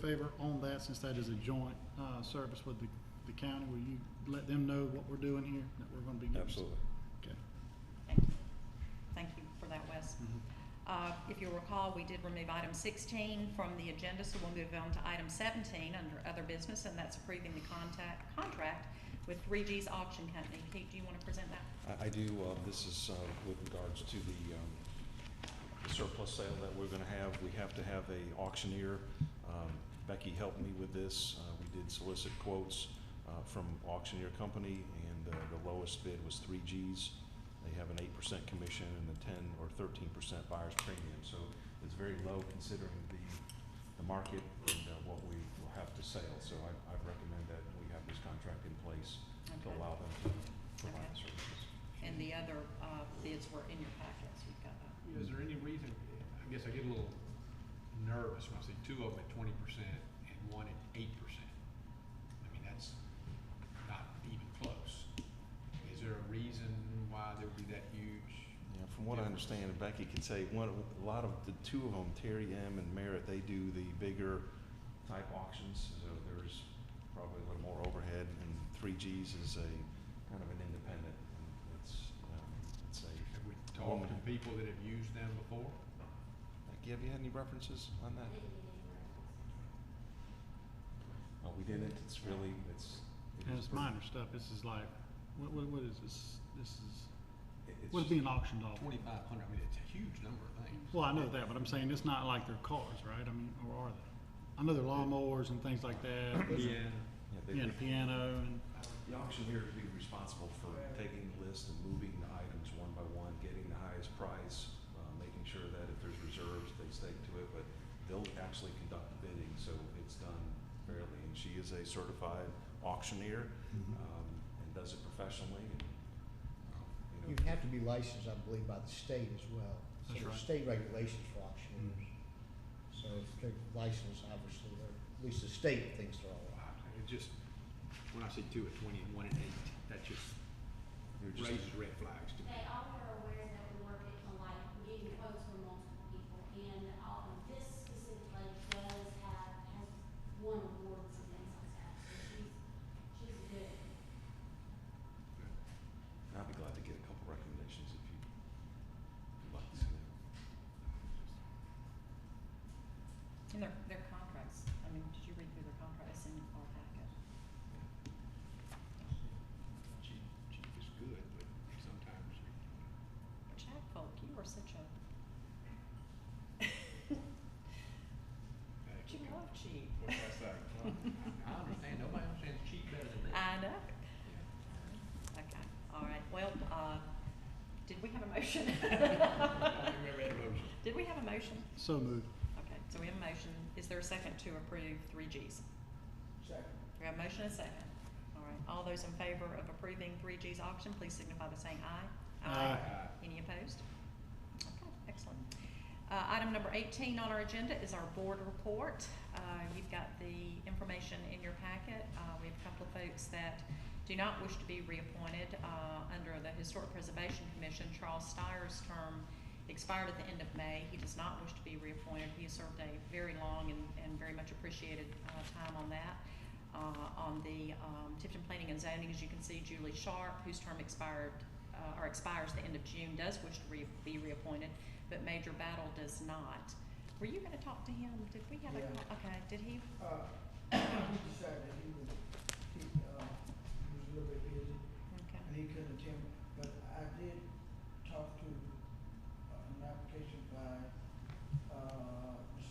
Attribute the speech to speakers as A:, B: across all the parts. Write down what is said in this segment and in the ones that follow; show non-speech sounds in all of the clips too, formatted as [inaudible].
A: favor on that, since that is a joint, uh, service with the, the county? Will you let them know what we're doing here, that we're gonna be getting?
B: Absolutely.
A: Okay.
C: Thank you. Thank you for that, Wes. Uh, If you'll recall, we did remove item 16 from the agenda, so we'll move on to item 17 under other business, and that's approving the contact, contract with 3G's Auction Company. Pete, do you want to present that?
B: I, I do, uh, this is, uh, with regards to the, um, the surplus sale that we're gonna have. We have to have a auctioneer. Um, Becky helped me with this. Uh, we did solicit quotes, uh, from auctioneer company, and, uh, the lowest bid was three Gs. They have an eight percent commission and a ten or thirteen percent buyer's premium, so it's very low considering the, the market and, uh, what we will have to sell. So I, I recommend that we have this contract in place to
C: Okay.
B: allow them to provide the services.
C: And the other uh, bids were in your packets. You've got uh, that.
D: Is there any reason, I guess I get a little nervous when I see two of them at twenty percent and one at eight percent. I mean, that's not even close. Is there a reason why there would be that huge?
B: Yeah, from what I understand, and Becky could say, one, a lot of, the two of them, Terry M and Merritt, they do the bigger type auctions, so there's probably a little more overhead, and three Gs is a, kind of an independent, and it's, um, it's a,
D: Have we talked to people that have used them before?
B: Becky, have you had any references on that? Oh, we didn't, it's really, it's. it
A: And
B: is
A: it's
B: pretty-
A: minor stuff, this is like, what, what, what is this, this is,
B: it- it's
A: what is being auctioned off?
D: Twenty-five hundred, I mean, it's a huge number of things.
A: Well, I know that, but I'm saying it's not like their cars, right? I mean, or are they? I know they're lawnmowers and things like that,
B: yeah, they-
A: yeah, and a piano and,
B: The auctioneer would be responsible for taking the list and moving the items one by one, getting the highest price, uh, making sure that if there's reserves, they stay to it, but they'll actually conduct the bidding, so it's done fairly. And she is a certified auctioneer,
A: Mm-hmm.
B: um, and does it professionally and, um, you
E: You
B: know.
E: have to be licensed, I believe, by the state as well.
A: That's
E: So
A: right. Mm-hmm.
E: there's state regulations for auctioneers. So if they're licensed, obviously, they're, at least the state thinks they're all right.
D: Wow, It just, when I see two at twenty and one at eight, that just
B: you're just-
D: raises red flags to me.
F: They all were aware that we were getting like, getting quotes from multiple people, and all of this specific lady does have, has won awards and things like that, so she's, she's good.
B: I'd be glad to get a couple recommendations if you would like to see them.
C: And their, their contracts, I mean, did you read through their contracts in our packet?
D: Cheap, cheap is good, but sometimes you
C: Jack Folk, you are such a, [laughs]
D: Hey,
C: you love cheap.
D: What can I
C: [laughs]
D: say? Well, I I understand, nobody understands cheap better than me.
C: I know.
D: Yeah.
C: Okay, all right, well, uh, did we have a motion? [laughs]
D: I don't remember that motion.
C: Did we have a motion?
A: so moved.
C: Okay, so we have a motion. Is there a second to approve three Gs? We have a motion and a second. All right, all those in favor of approving three G's auction, please signify by saying aye.
A: Aye.
C: Any opposed? Okay, excellent. Uh, item number eighteen on our agenda is our board report. Uh, you've got the information in your packet. Uh, we have a couple of folks that do not wish to be reappointed, uh, under the Historic Preservation Commission. Charles Steyer's term expired at the end of May. He does not wish to be reappointed. He has served a very long and, and very much appreciated, uh, time on that. Uh, on the, um, Tifton Planning and Zoning, as you can see, Julie Sharp, whose term expired, uh, or expires the end of June, does wish to re- be reappointed, but Major Battle does not. Were you gonna talk to him? Did we have a,
G: Yeah.
C: call- okay, did he?
G: Uh, he decided that he would, he, uh, he was a little bit busy and
C: Okay,
G: he couldn't attend, but I did talk to uh, an application by, uh, Ms.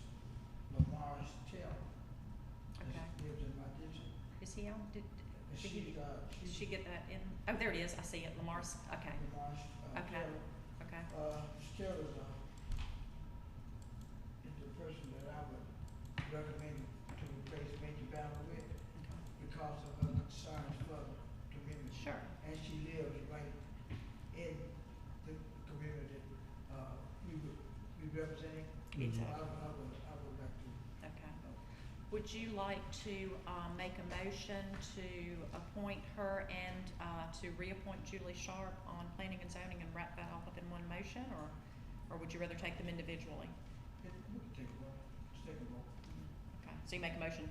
G: Lamar's Taylor. that
C: okay.
G: Lives in my district.
C: Is he on? Did,
G: And
C: did he,
G: she's, uh,
C: did she
G: she's
C: get that in? Oh, there it is. I see it. Lamar's, okay,
G: Lamar's, uh,
C: Okay.
G: Taylor.
C: okay.
G: Uh, Ms. Taylor's, uh, is the person that I would recommend to replace Major Battle with
C: okay.
G: because of her concerns for the community.
C: Sure,
G: and she lives right in the community, uh, we would, we representing. I
C: exactly,
G: would, I would, I would like to,
C: okay.
G: uh,
C: Would you like to, um, make a motion to appoint her and, uh, to reappoint Julie Sharp on planning and zoning and wrap that all up in one motion, or, or would you rather take them individually?
G: it- we can take a vote, let's take a vote.
C: Okay, So you make a motion